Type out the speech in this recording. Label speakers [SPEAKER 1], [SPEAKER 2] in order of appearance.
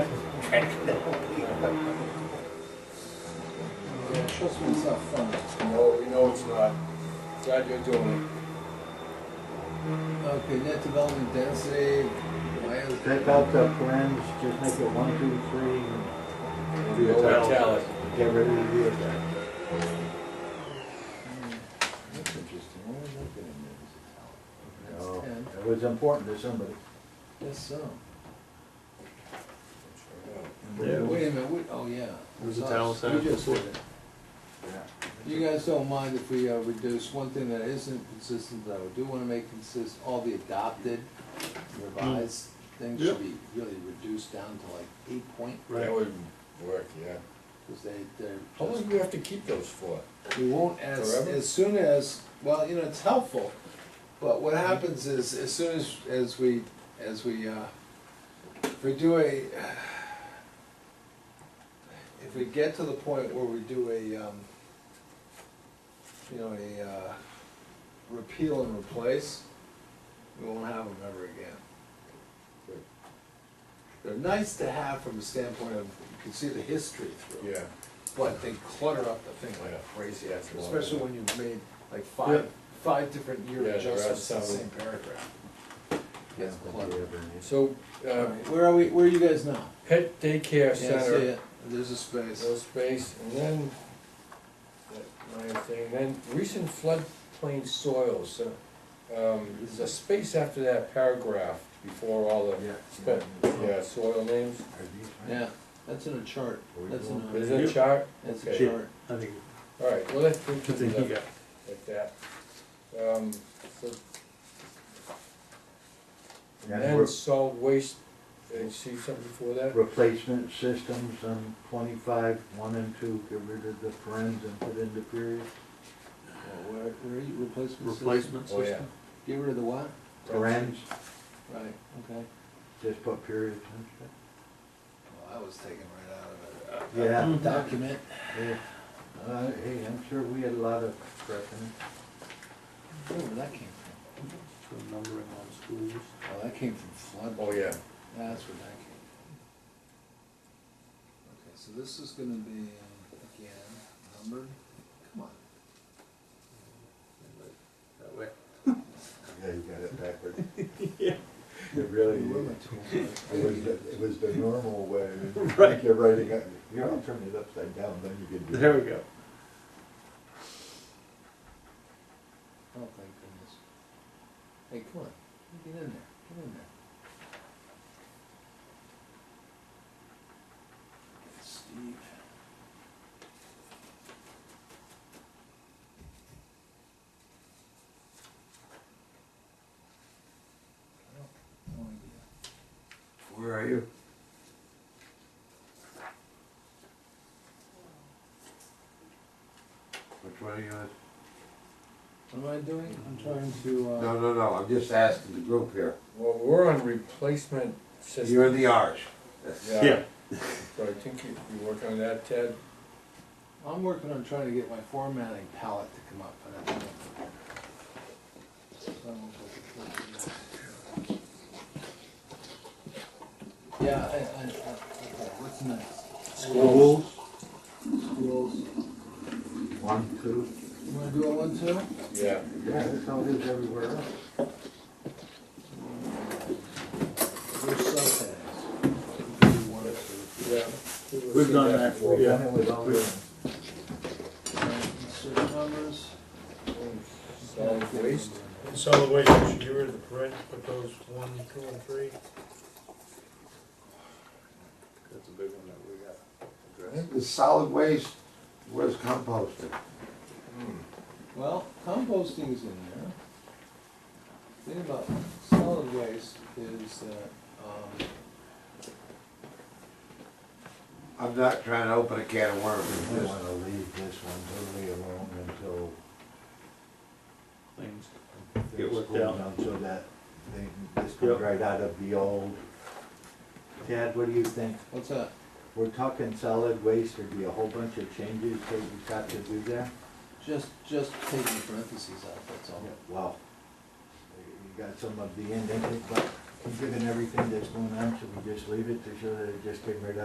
[SPEAKER 1] Yeah, trust me, it's not fun.
[SPEAKER 2] No, we know it's not. Glad you're doing
[SPEAKER 1] Okay, net development density, why is?
[SPEAKER 3] Take out the plans, just make it one, two, three,
[SPEAKER 2] it. The old italic.
[SPEAKER 3] and get rid of the rear deck.
[SPEAKER 1] Hmm, That's interesting, why is that getting there?
[SPEAKER 3] No,
[SPEAKER 1] Ten.
[SPEAKER 3] It Oh, was important to somebody.
[SPEAKER 1] Yes, so.
[SPEAKER 3] Yeah.
[SPEAKER 1] Wait a minute, we, oh, yeah.
[SPEAKER 4] Where's the
[SPEAKER 1] Us.
[SPEAKER 4] town center?
[SPEAKER 1] We just did it.
[SPEAKER 3] Yeah.
[SPEAKER 1] You guys don't mind if we uh, reduce one thing that isn't consistent, though, do wanna make consist, all the adopted, revised things should be really reduced down to like eight point,
[SPEAKER 2] That would work, yeah.
[SPEAKER 1] cause they, they're
[SPEAKER 2] How long
[SPEAKER 1] just-
[SPEAKER 2] do we have to keep those for?
[SPEAKER 1] We won't as,
[SPEAKER 2] Forever?
[SPEAKER 1] as soon as, well, you know, it's helpful, but
[SPEAKER 2] Mm-hmm.
[SPEAKER 1] what happens is, as soon as, as we, as we, uh, if we do a, if we get to the point where we do a, um, you know, a, uh, repeal and replace, we won't have them ever again. They're nice to have from a standpoint of, you can see the history through.
[SPEAKER 2] Yeah.
[SPEAKER 1] But they clutter up the thing like
[SPEAKER 2] Yeah.
[SPEAKER 1] crazy,
[SPEAKER 2] Yeah, it's a lot.
[SPEAKER 1] especially when you've made like five, five different year
[SPEAKER 2] Yeah, there are
[SPEAKER 1] adjustments to the
[SPEAKER 2] some.
[SPEAKER 1] same paragraph. Gets
[SPEAKER 3] But
[SPEAKER 1] cluttered.
[SPEAKER 3] you ever need-
[SPEAKER 2] So, uh,
[SPEAKER 1] Alright, Where are we, where are you guys now?
[SPEAKER 2] pet daycare
[SPEAKER 1] Yeah, I see
[SPEAKER 2] center,
[SPEAKER 1] it. There's a space.
[SPEAKER 2] no space, and then, that my thing, then recent floodplain soils. uh, Um, there's a space after that paragraph before all the,
[SPEAKER 3] Yeah.
[SPEAKER 2] but, yeah, soil names.
[SPEAKER 3] Are these fine?
[SPEAKER 1] Yeah, that's in a chart.
[SPEAKER 3] Are we
[SPEAKER 1] That's in
[SPEAKER 3] doing-
[SPEAKER 1] a,
[SPEAKER 2] Is that a chart?
[SPEAKER 1] that's a
[SPEAKER 2] Okay.
[SPEAKER 1] chart.
[SPEAKER 4] I think,
[SPEAKER 2] All right, well, let's do
[SPEAKER 4] I think he
[SPEAKER 2] it
[SPEAKER 4] got,
[SPEAKER 2] like that. Um, so
[SPEAKER 3] And
[SPEAKER 2] Then
[SPEAKER 3] we're-
[SPEAKER 2] solid waste, did you see something before that?
[SPEAKER 3] replacement systems on twenty-five, one and two, get rid of the friends and put in the period.
[SPEAKER 1] Oh, Where, where are you, replacement system?
[SPEAKER 4] replacement
[SPEAKER 2] Oh, yeah.
[SPEAKER 4] system?
[SPEAKER 1] Get rid of the what?
[SPEAKER 3] Friends,
[SPEAKER 1] Right, okay.
[SPEAKER 3] just put periods instead.
[SPEAKER 1] Well, I was taken right out of it.
[SPEAKER 3] Yeah.
[SPEAKER 1] Hmm, Document.
[SPEAKER 3] Yeah. Uh, hey, I'm sure we had a lot of crap in it.
[SPEAKER 1] Where did that came from?
[SPEAKER 4] For numbering on schools.
[SPEAKER 1] Oh, that came from flood.
[SPEAKER 2] Oh, yeah.
[SPEAKER 1] That's where that came from. Okay, so this is gonna be, uh, again, numbered, come on. That way.
[SPEAKER 3] Yeah, you got it backwards.
[SPEAKER 4] Yeah.
[SPEAKER 3] It really,
[SPEAKER 1] Where are my
[SPEAKER 3] it
[SPEAKER 1] tools?
[SPEAKER 3] was, the- it was the normal way.
[SPEAKER 4] Right.
[SPEAKER 3] You're writing, it- you gotta turn it upside down, then you can do it.
[SPEAKER 4] There we go.
[SPEAKER 1] Oh, thank goodness. Hey, come on, get in there, get in there. Steve. No, no idea.
[SPEAKER 3] Where are you?
[SPEAKER 5] Which one are you on?
[SPEAKER 1] What am I doing? I'm trying to, uh.
[SPEAKER 5] No, no, no, I'm just asking the group here.
[SPEAKER 2] Well, we're on replacement system.
[SPEAKER 5] You're the R's.
[SPEAKER 4] Yeah.
[SPEAKER 2] So I think you, you work on that, Ted?
[SPEAKER 1] I'm working on trying to get my formatting palette to come up, but I don't. Yeah, I, I, I, okay, what's next?
[SPEAKER 4] Schools.
[SPEAKER 1] Schools.
[SPEAKER 3] One, two.
[SPEAKER 1] You wanna do it one too?
[SPEAKER 2] Yeah.
[SPEAKER 3] Yeah, that's how it is everywhere else.
[SPEAKER 1] There's subheadings. Do one or two.
[SPEAKER 2] Yeah.
[SPEAKER 4] We've done that for
[SPEAKER 3] Well,
[SPEAKER 4] you.
[SPEAKER 3] then it was all good.
[SPEAKER 1] Uh, Insert numbers.
[SPEAKER 2] Solid waste,
[SPEAKER 6] Solid waste, we should get rid of the print, put those one, two, and three.
[SPEAKER 4] That's a big one that we got
[SPEAKER 2] addressed.
[SPEAKER 5] The solid waste was composted.
[SPEAKER 2] Hmm.
[SPEAKER 1] Well, composting is in there. Thing about solid waste is that, um,
[SPEAKER 5] I'm not trying to open a can of worms.
[SPEAKER 3] We
[SPEAKER 5] Just-
[SPEAKER 3] wanna leave this one totally alone until
[SPEAKER 4] Things. Get
[SPEAKER 3] things
[SPEAKER 4] worked
[SPEAKER 3] cool
[SPEAKER 4] out.
[SPEAKER 3] down, so that they, this comes
[SPEAKER 4] Yep.
[SPEAKER 3] right out of the old. Tad, what do you think?
[SPEAKER 1] what's that?
[SPEAKER 3] We're talking solid waste, there'd be a whole bunch of changes that we've got to do there?
[SPEAKER 1] Just, just taking parentheses out, that's all.
[SPEAKER 3] Well, you got some of the end, in it, but given everything that's going on, should we just leave it to show that it just came right out